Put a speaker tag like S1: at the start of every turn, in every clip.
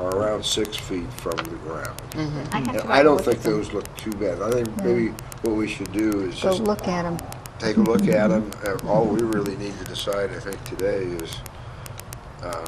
S1: are around six feet from the ground.
S2: I have to
S1: And
S2: go
S1: I don't
S2: look
S1: think
S2: at them.
S1: those look too bad. I think maybe what we should do is
S2: Go
S1: just
S2: look at them.
S1: take a look at them. Uh, All we really need to decide, I think, today is, uh,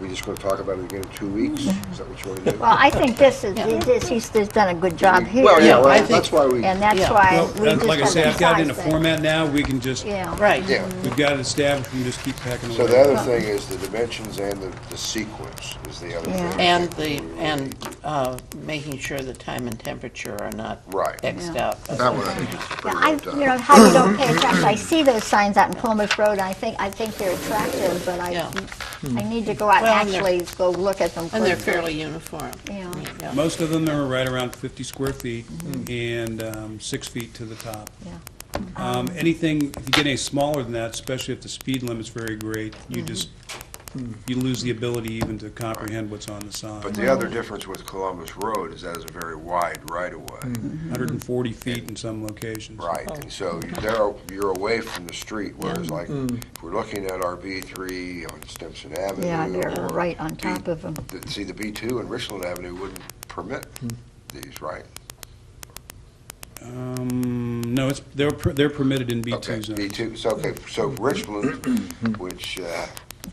S1: we just going to talk about it again in two weeks? Is that what you want to do?
S2: Well, I think this is, this, he's just done a good job here.
S1: Well, yeah,
S3: I
S1: well,
S3: think-
S1: that's why we,
S2: And that's why
S4: Well,
S2: we just
S4: that- like I say, I've got it in a
S2: emphasize that.
S4: format now, we can just,
S2: Yeah.
S3: Right.
S1: yeah.
S4: we've got it established, we can just keep packing away.
S1: So the other thing is the dimensions and the the sequence is the other
S2: Yeah.
S1: thing.
S3: And the, and uh, making sure the time and temperature are not
S1: Right.
S3: Xed out.
S1: That one I think is pretty
S2: I,
S1: well
S2: you
S1: done.
S2: know, how you don't pay attention, I see those signs out in Plymouth Road, and I think, I think they're attractive, but I,
S3: Yeah.
S2: I need to go out and
S3: Well, and they're-
S2: actually go look at them.
S3: And they're
S2: closely.
S3: fairly uniform.
S2: Yeah.
S4: Most of them are right around 50 square feet and um, six feet to the top.
S2: Yeah.
S4: Um, Anything, if you get any smaller than that, especially if the speed limit's very great, you just, you lose the ability even to comprehend what's on the
S1: But
S4: sign.
S1: the other difference with Columbus Road is that is a very wide right-of-way.
S4: 140 feet in some locations.
S1: Right, and so you- there, you're away from the street, whereas like, if we're looking at our B3 on Stimson Avenue.
S2: Yeah, they're
S1: or
S2: right on
S1: B-
S2: top of them.
S1: the- See, the B2 and Richland Avenue wouldn't permit these, right?
S4: Um, No, it's, they're per- they're permitted in
S1: Okay,
S4: B2 zones.
S1: B2, so, okay, so Richland, which uh,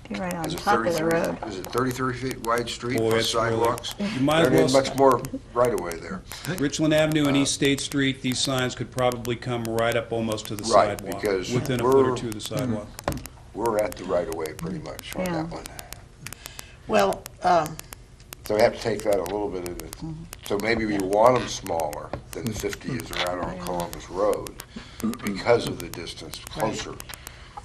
S2: You're right on
S1: is a
S2: top of the
S1: 33,
S2: road.
S1: is it 33 feet wide street
S4: Boy,
S1: with
S4: it's really-
S1: sidewalks?
S4: You might as
S1: There
S4: well
S1: ain't
S4: s-
S1: much more right-of-way there.
S4: Richland Avenue
S1: Uh,
S4: and East State Street, these signs could probably come right up almost to the
S1: Right,
S4: sidewalk.
S1: because
S4: Within a foot or
S1: we're-
S4: two of the sidewalk.
S1: We're at the right-of-way pretty much on
S2: Yeah.
S1: that one.
S3: Well, um,
S1: So we have to take that a little bit of it. So maybe we want them smaller than the 50 is around on Columbus Road because of the distance closer.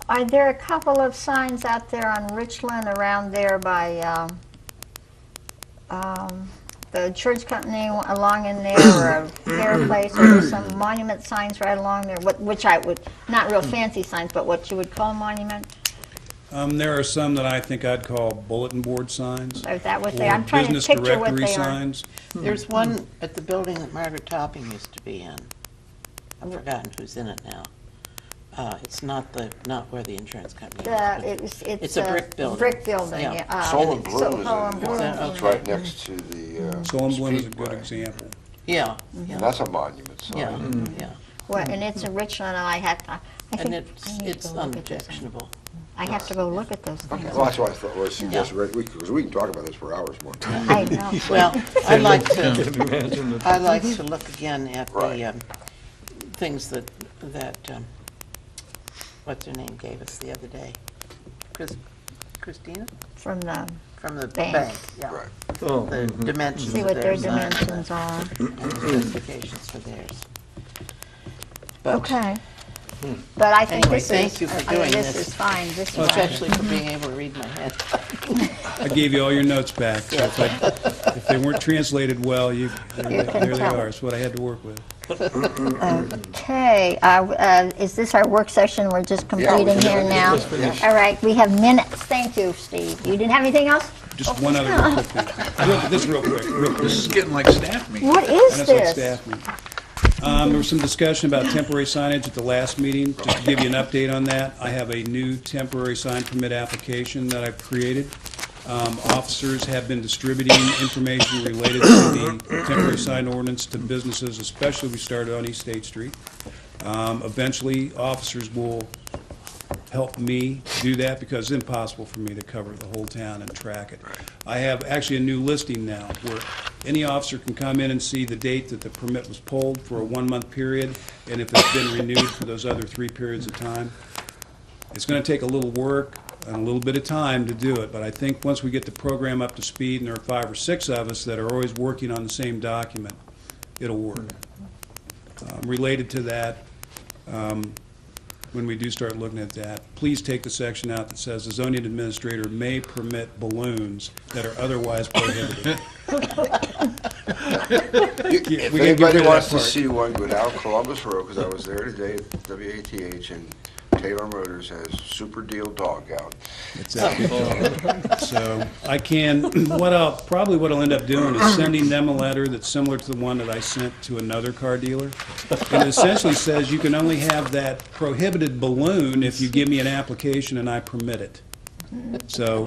S2: Are there a couple of signs out there on Richland around there by, um, um, the church company along in there, or a fair place, or there's some monument signs right along there, what- which I would, not
S4: Hmm.
S2: real fancy signs, but what you would call monument?
S4: Um, there are some that I think I'd call bulletin board signs.
S2: Is that what they,
S4: or
S2: I'm trying to
S4: business
S2: picture what
S4: directory
S2: they are.
S4: signs.
S3: there's one at the building that Margaret Topping used to be in. I've forgotten who's in it now. Uh, It's not the, not where the insurance company
S2: The-
S3: is.
S2: It's it's
S3: It's a brick building.
S2: Brick building,
S3: Yeah.
S2: yeah. uh,
S1: Solon
S2: so-
S1: Bloom is
S2: Solon
S1: in
S2: Bloom.
S1: one.
S3: Ah. Yeah,
S1: It's right next to the uh,
S4: Mm-hmm. Solon Bloom is a good
S1: Speedway.
S4: example.
S3: Yeah,
S1: And
S3: yeah,
S1: that's a monument
S3: yeah,
S1: sign.
S3: yeah.
S2: Well, And it's in Richland, and I have, I I
S3: And
S2: think, I
S3: it's,
S2: need to
S3: it's
S2: go look at those.
S3: unobjectionable.
S2: I have to go look at those
S1: Okay,
S2: things.
S1: Well, that's why I thought, well, I suggested, right, we- because we can talk about this for hours more.
S2: I know.
S3: Well, I'd like to,
S5: Imagine the
S3: I'd like to look again at
S1: Right.
S3: the um, things that, that, um, what's her name gave us the other day? Chris- Christina,
S2: from the,
S3: from the
S2: Bank.
S3: bank, yeah.
S1: Right.
S5: Oh,
S3: The dimensions
S2: see
S3: of
S2: what their
S3: their sign.
S2: dimensions are.
S3: and Specifications for theirs. But- Hmm.
S2: Okay. But I think
S3: Anyway,
S2: this is.
S3: thank you for
S2: I mean,
S3: doing
S2: This
S3: this.
S2: is fine, this is fine.
S3: Especially for being able to read my head.
S4: I gave you all your notes back, so if, I, if they weren't translated well, you, there
S2: can
S4: there they
S2: tell.
S4: are. It's what I had to work with.
S2: Okay, uh, uh, is this our work session we're just
S1: we
S2: completing
S1: can
S2: here
S1: do
S2: now?
S1: this, finish.
S2: All right, we have minutes, thank you, Steve. You didn't have anything else?
S4: Just one other real quick thing. Real- This real quick, real quick.
S6: This is getting like staff meeting.
S2: What is
S4: That's like
S2: this?
S4: staff meeting. Um, There was some discussion about temporary signage at the last meeting. Just to give you an update on that, I have a new temporary sign permit application that I've created. Um, Officers have been distributing information related to the temporary sign ordinance to businesses, especially we started on East State Street. Um, Eventually, officers will help me do that because it's impossible for me to cover the whole town and track it. I have actually a new listing now where any officer can come in and see the date that the permit was pulled for a one-month period and if it's been renewed for those other three periods of time. It's going to take a little work and a little bit of time to do it, but I think once we get the program up to speed and there are five or six of us that are always working on the same document, it'll work. Um, Related to that, when we do start looking at that, please take the section out that says the zoning administrator may permit balloons that are otherwise prohibited.
S1: If
S4: We can get rid
S1: anybody
S4: of that
S1: wants to
S4: part.
S1: see one, go down Columbus Road, because I was there today at WATH, and Taylor Motors has super deal dog out.
S4: So I can, what I'll, probably what I'll end up doing is sending them a letter that's similar to the one that I sent to another car dealer. And it essentially says you can only have that prohibited balloon if you give me an application and I permit it. So